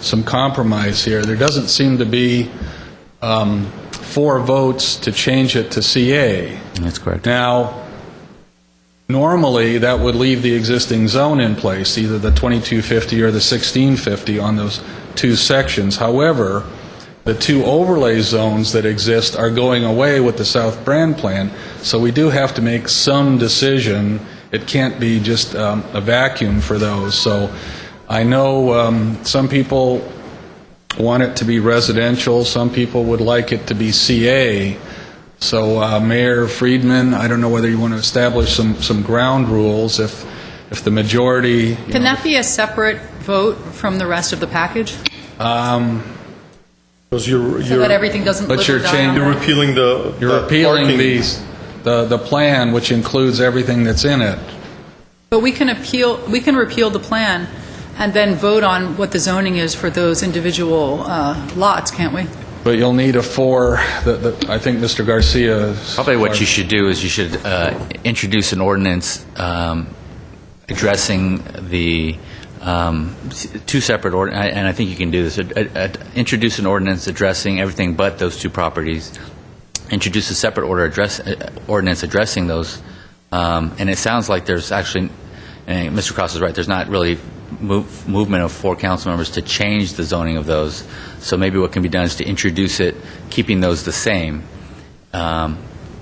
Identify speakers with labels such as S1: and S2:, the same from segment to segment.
S1: some compromise here. There doesn't seem to be um, four votes to change it to CA.
S2: That's correct.
S1: Now, normally, that would leave the existing zone in place, either the 2250 or the 1650 on those two sections. However, the two overlay zones that exist are going away with the South Brand Plan, so we do have to make some decision. It can't be just um, a vacuum for those. So I know um, some people want it to be residential, some people would like it to be CA. So uh, Mayor Friedman, I don't know whether you want to establish some, some ground rules if, if the majority, you
S3: Can
S1: know,
S3: that be a separate vote from the rest of the package?
S4: Because you're,
S3: So that
S4: you're,
S3: everything doesn't
S1: But
S3: live
S1: you're
S3: or die
S1: changing-
S3: on
S4: you're
S3: that?
S4: repealing the.
S1: you're
S4: the
S1: appealing
S4: parking.
S1: these, the, the plan, which includes everything that's in it.
S3: But we can appeal, we can repeal the plan and then vote on what the zoning is for those individual uh, lots, can't we?
S1: But you'll need a four, that, that- I think Mr. Garcia.
S2: Probably what you should do is you should uh, introduce an ordinance um, addressing the, um, s- two separate, ord- I- and I think you can do this, Ad- ad- ad- introduce an ordinance addressing everything but those two properties, introduce a separate order address, uh, ordinance addressing those, Um, and it sounds like there's actually, and Mr. Cross is right, there's not really move- movement of four council members to change the zoning of those, so maybe what can be done is to introduce it, keeping those the same, um,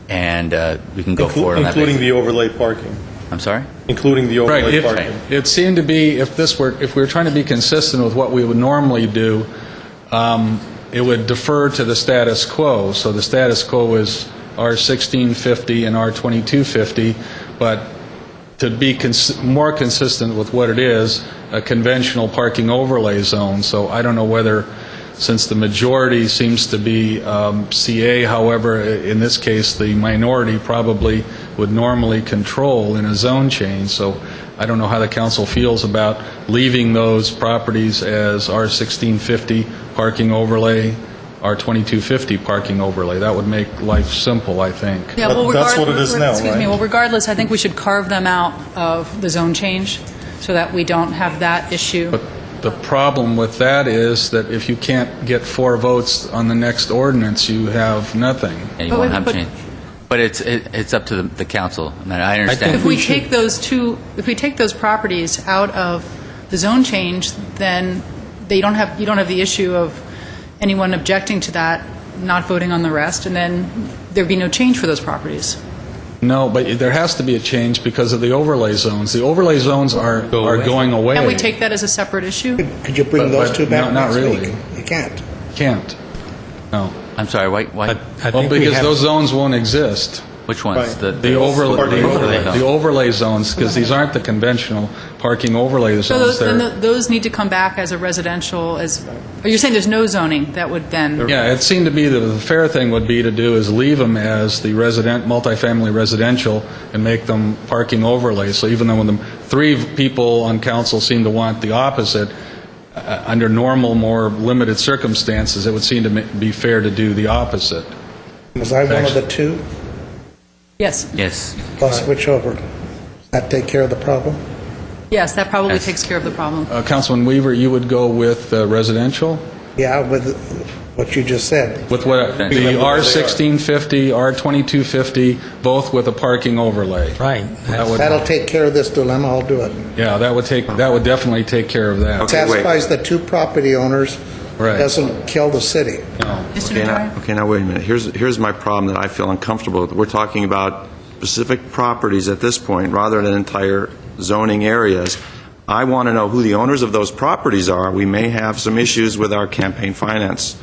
S2: and uh, we can go
S4: Inclu-
S2: forward on that
S4: Including the
S2: basis.
S4: overlay parking,
S2: I'm sorry?
S4: including the
S1: Right,
S4: overlay
S1: if-
S4: parking.
S1: it seemed to be, if this were, if we were trying to be consistent with what we would normally do, um, it would defer to the status quo. So the status quo is R sixteen fifty and R twenty-two fifty, but to be cons- more consistent with what it is, a conventional parking overlay zone. So I don't know whether, since the majority seems to be um, CA, however, i- in this case, the minority probably would normally control in a zone change. So I don't know how the council feels about leaving those properties as R1650 parking overlay, R2250 parking overlay. That would make life simple, I think.
S3: Yeah,
S4: That-
S3: well,
S4: that's
S3: regard-
S4: what it is now,
S3: Excuse me,
S4: right?
S3: well, regardless, I think we should carve them out of the zone change so that we don't have that issue.
S1: But the problem with that is that if you can't get four votes on the next ordinance, you have nothing.
S2: Yeah, you
S3: But
S2: won't
S3: we-
S2: have
S3: but-
S2: change. But it's, it- it's up to the- the council, and I
S3: If
S2: understand.
S3: we take those two, if we take those properties out of the zone change, then they don't have, you don't have the issue of anyone objecting to that, not voting on the rest, and then there'd be no change for those properties.
S1: No, but there has to be a change because of the overlay zones. The overlay zones are, are going away.
S3: Can we take that as a separate issue?
S5: Could you bring
S1: But-
S5: those
S1: but
S5: two
S1: no-
S5: back
S1: not
S5: next
S1: really.
S5: week? You can't.
S1: Can't. No.
S2: I'm sorry, why, why,
S1: Well, because those zones won't exist.
S2: which ones?
S4: Right.
S1: The overlay,
S4: Parking
S1: the
S4: overlay.
S1: overlay- the overlay zones, because these aren't the conventional parking overlay
S3: So
S1: zones.
S3: those, then
S1: They're-
S3: tho- those need to come back as a residential, as, or you're saying there's no zoning that would then,
S1: Yeah, it seemed to be that the fair thing would be to do is leave them as the resident, multifamily residential and make them parking overlays. So even though when the three people on council seem to want the opposite, uh, under normal, more limited circumstances, it would seem to ma- be fair to do the opposite.
S5: Was I one of the two?
S3: yes,
S2: Yes.
S5: I'll switch over. That take care of the problem?
S3: yes, that probably
S2: Yes.
S3: takes care of the problem.
S1: Uh, Councilman Weaver, you would go with uh, residential?
S5: Yeah, with what you just said.
S1: With what, the
S4: Remember where they are.
S1: R1650, R2250, both with a parking overlay?
S6: Right.
S1: That would-
S5: That'll take care of this dilemma, I'll do it.
S1: Yeah, that would take, that would definitely take care of that.
S5: Satisfies the two property owners,
S1: Right.
S5: doesn't kill the city.
S3: Mr.
S7: Okay, now,
S3: Najarian?
S7: okay, now wait a minute. Here's, here's my problem that I feel uncomfortable with. We're talking about specific properties at this point rather than entire zoning areas. I want to know who the owners of those properties are. We may have some issues with our campaign finance.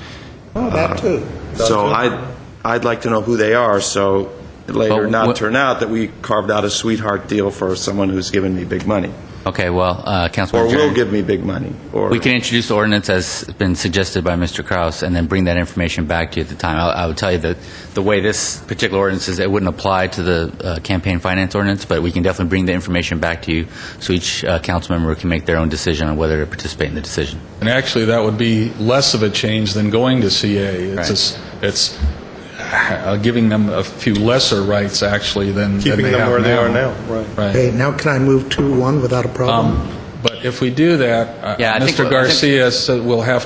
S5: Oh,
S1: Uh-huh.
S5: that too.
S7: So I'd, I'd like to know who they are, so it later
S2: But
S7: not
S2: what-
S7: turn out that we carved out a sweetheart deal for someone who's given me big money,
S2: Okay, well, uh,
S7: or
S2: Councilman
S7: will
S2: Jerry.
S7: give me big money, or...
S2: We can introduce the ordinance as been suggested by Mr. Kraus, and then bring that information back to you at the time. I I would tell you that the way this particular ordinance is, it wouldn't apply to the uh, campaign finance ordinance, but we can definitely bring the information back to you, so each uh, council member can make their own decision on whether to participate in the decision.
S1: And actually, that would be less of a change than going to CA. It's, just- it's uh, giving them a few lesser rights, actually, than than
S4: Keeping
S1: they
S4: them
S1: have
S4: where they are now,
S1: Right.
S5: Hey, now can I move two, one without a problem?
S1: But if we do that, uh,
S2: Yeah, I
S1: Mr.
S2: think what- I think-
S1: Garcia said we'll have